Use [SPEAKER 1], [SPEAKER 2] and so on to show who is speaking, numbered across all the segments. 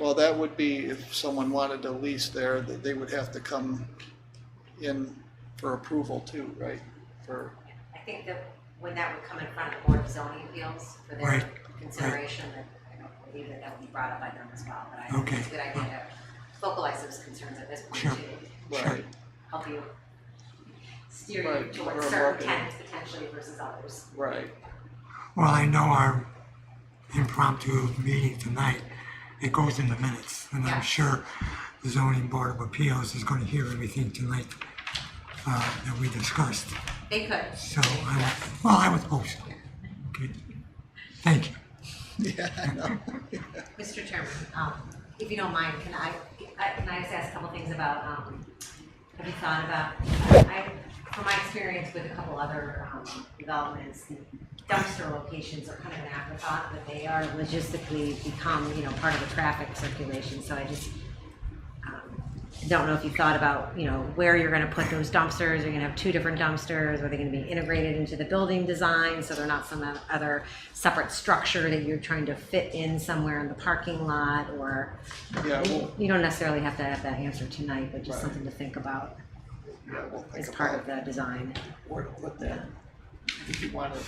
[SPEAKER 1] Well, that would be if someone wanted to lease there, that they would have to come in for approval too, right? For,
[SPEAKER 2] I think that when that would come in front of the Board of Zoning Appeals for their
[SPEAKER 3] Right,
[SPEAKER 2] consideration, that I don't believe that that would be brought up by them as well, but I
[SPEAKER 3] Okay.
[SPEAKER 2] think it's a good idea to focalize those concerns at this point
[SPEAKER 3] Sure.
[SPEAKER 2] to
[SPEAKER 1] right,
[SPEAKER 2] help you steer
[SPEAKER 1] Right,
[SPEAKER 2] you
[SPEAKER 1] or
[SPEAKER 2] towards certain
[SPEAKER 1] marketing.
[SPEAKER 2] tenants potentially versus others.
[SPEAKER 1] right.
[SPEAKER 3] Well, I know our impromptu meeting tonight, it goes in the minutes, and
[SPEAKER 2] Yeah.
[SPEAKER 3] I'm sure the zoning board of appeals is gonna hear everything tonight uh, that we discussed,
[SPEAKER 2] They could.
[SPEAKER 3] so I, would- well, I would hope so. Okay. Thank you.
[SPEAKER 1] Yeah, I know.
[SPEAKER 2] Mr. Chairman, um, if you don't mind, can I, I- can I just ask a couple things about, um, have you thought about, I, from my experience with a couple other, um, developments, dumpster locations are kind of an afterthought, but they are logistically become, you know, part of the traffic circulation, so I just, um, don't know if you thought about, you know, where you're gonna put those dumpsters, are you gonna have two different dumpsters, are they gonna be integrated into the building design, so they're not some other separate structure that you're trying to fit in somewhere in the parking lot, or
[SPEAKER 1] Yeah, we'll,
[SPEAKER 2] you don't necessarily have to have that answer tonight, but just
[SPEAKER 1] Right.
[SPEAKER 2] something to think about
[SPEAKER 1] yeah, we'll
[SPEAKER 2] as
[SPEAKER 1] think
[SPEAKER 2] part of
[SPEAKER 1] about
[SPEAKER 2] the design.
[SPEAKER 1] where to put that. If you wanted,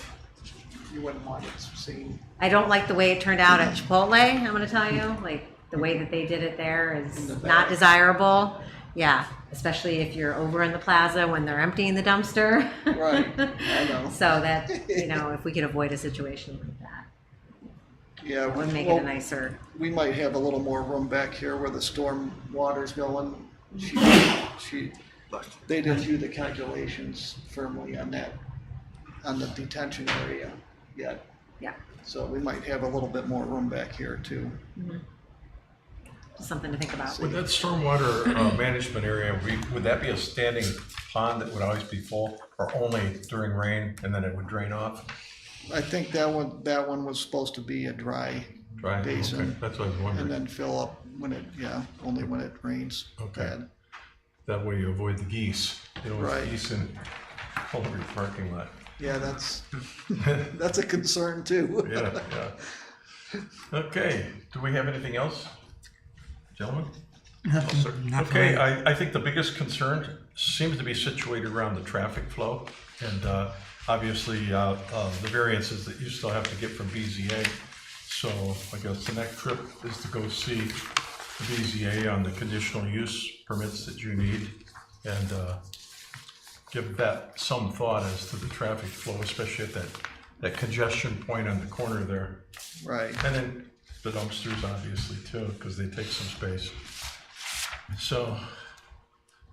[SPEAKER 1] you wouldn't want it seen,
[SPEAKER 2] I don't like the way it turned out at
[SPEAKER 1] Mm-hmm.
[SPEAKER 2] Chipotle, I'm gonna tell you, like, the way that they did it there
[SPEAKER 1] In the
[SPEAKER 2] is
[SPEAKER 1] back.
[SPEAKER 2] not desirable. Yeah, especially if you're over in the plaza when they're emptying the dumpster.
[SPEAKER 1] right, I know.
[SPEAKER 2] So that, you know, if we could avoid a situation like that,
[SPEAKER 1] Yeah,
[SPEAKER 2] that would
[SPEAKER 1] we,
[SPEAKER 2] make it a
[SPEAKER 1] well,
[SPEAKER 2] nicer,
[SPEAKER 1] we might have a little more room back here where the storm water's going. She, she, they did do the calculations firmly on that, on the detention area yet.
[SPEAKER 2] yeah,
[SPEAKER 1] So we might have a little bit more room back here too.
[SPEAKER 2] just something to think about.
[SPEAKER 4] Would that stormwater uh, management area, be- would that be a standing pond that would always be full or only during rain and then it would drain off?
[SPEAKER 1] I think that one, that one was supposed to be a dry
[SPEAKER 4] Dry? Okay,
[SPEAKER 1] Basin.
[SPEAKER 4] That's what I was
[SPEAKER 1] and
[SPEAKER 4] wondering.
[SPEAKER 1] then fill up when it, yeah, only when it rains
[SPEAKER 4] Okay.
[SPEAKER 1] bad.
[SPEAKER 4] That way you avoid the geese. You know,
[SPEAKER 1] Right.
[SPEAKER 4] it's geese in all over your parking lot.
[SPEAKER 1] Yeah, that's, that's a concern too.
[SPEAKER 4] Yeah, yeah. Okay, do we have anything else? Gentlemen?
[SPEAKER 3] Nothing-
[SPEAKER 4] Sir-
[SPEAKER 3] nothing.
[SPEAKER 4] Okay, I, I think the biggest concern seems to be situated around the traffic flow. And uh, obviously, uh, uh, the variances that you still have to get from BZA. So I guess the next trip is to go see the BZA on the conditional use permits that you need. And uh, give that some thought as to the traffic flow, especially at that, that congestion point on the corner there.
[SPEAKER 1] Right,
[SPEAKER 4] And then the dumpsters, obviously, too, because they take some space. So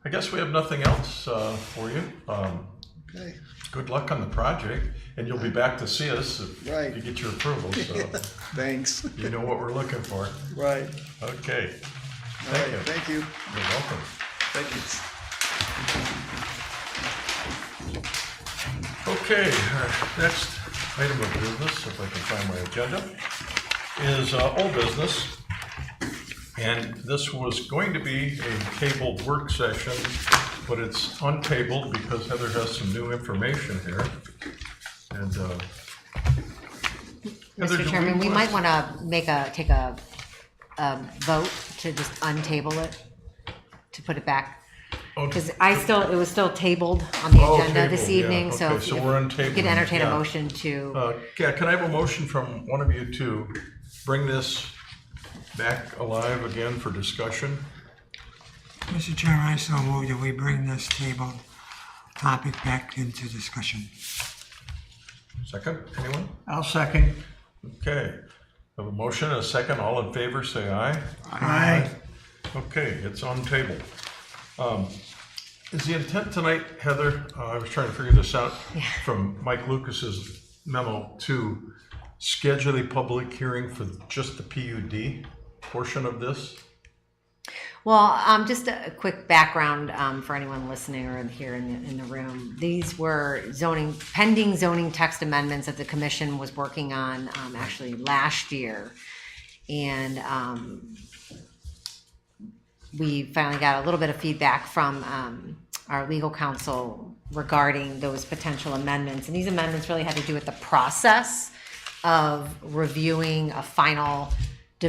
[SPEAKER 4] I guess we have nothing else uh, for you. Um,
[SPEAKER 1] okay,
[SPEAKER 4] Good luck on the project, and you'll be back to see us
[SPEAKER 1] Right.
[SPEAKER 4] if you get your approval, so
[SPEAKER 1] thanks,
[SPEAKER 4] you know what we're looking for.
[SPEAKER 1] right,
[SPEAKER 4] Okay,
[SPEAKER 1] all right,
[SPEAKER 4] you.
[SPEAKER 1] thank you,
[SPEAKER 4] you're welcome.
[SPEAKER 1] thank you.
[SPEAKER 4] Okay, our next item of business, if I can find my agenda, is uh, old business. And this was going to be a tabled work session, but it's untabled because Heather has some new information here. And, uh. Heather, do
[SPEAKER 2] Mr. Chairman, we
[SPEAKER 4] wanna-
[SPEAKER 2] might wanna make a, take a, a vote to just untable it, to put it back.
[SPEAKER 4] Oh,
[SPEAKER 2] Cause I still, it was still tabled on the
[SPEAKER 4] Oh,
[SPEAKER 2] agenda this
[SPEAKER 4] tabled, yeah.
[SPEAKER 2] evening, so
[SPEAKER 4] Okay,
[SPEAKER 2] if
[SPEAKER 4] so
[SPEAKER 2] you
[SPEAKER 4] we're
[SPEAKER 2] if you could
[SPEAKER 4] untabling,
[SPEAKER 2] entertain a
[SPEAKER 4] yeah.
[SPEAKER 2] motion to,
[SPEAKER 4] Uh, yeah, can I have a motion from one of you to bring this back alive again for discussion?
[SPEAKER 3] Mr. Chairman, I so move that we bring this table topic back into discussion.
[SPEAKER 4] Second, anyone?
[SPEAKER 5] I'll second.
[SPEAKER 4] Okay, have a motion and a second, all in favor, say aye.
[SPEAKER 5] Aye.
[SPEAKER 4] Okay, it's on table. Um, Is the intent tonight, Heather, uh, I was trying to figure this out from Mike Lucas's memo, to schedule a public hearing for just the PUD portion of this?
[SPEAKER 2] well, um, just a a quick background, um, for anyone listening or here in the, in the room. These were zoning, pending zoning text amendments that the commission was working on, um, actually last year. And, um, we finally got a little bit of feedback from um, our legal counsel regarding those potential amendments. And these amendments really had to do with the process of reviewing a final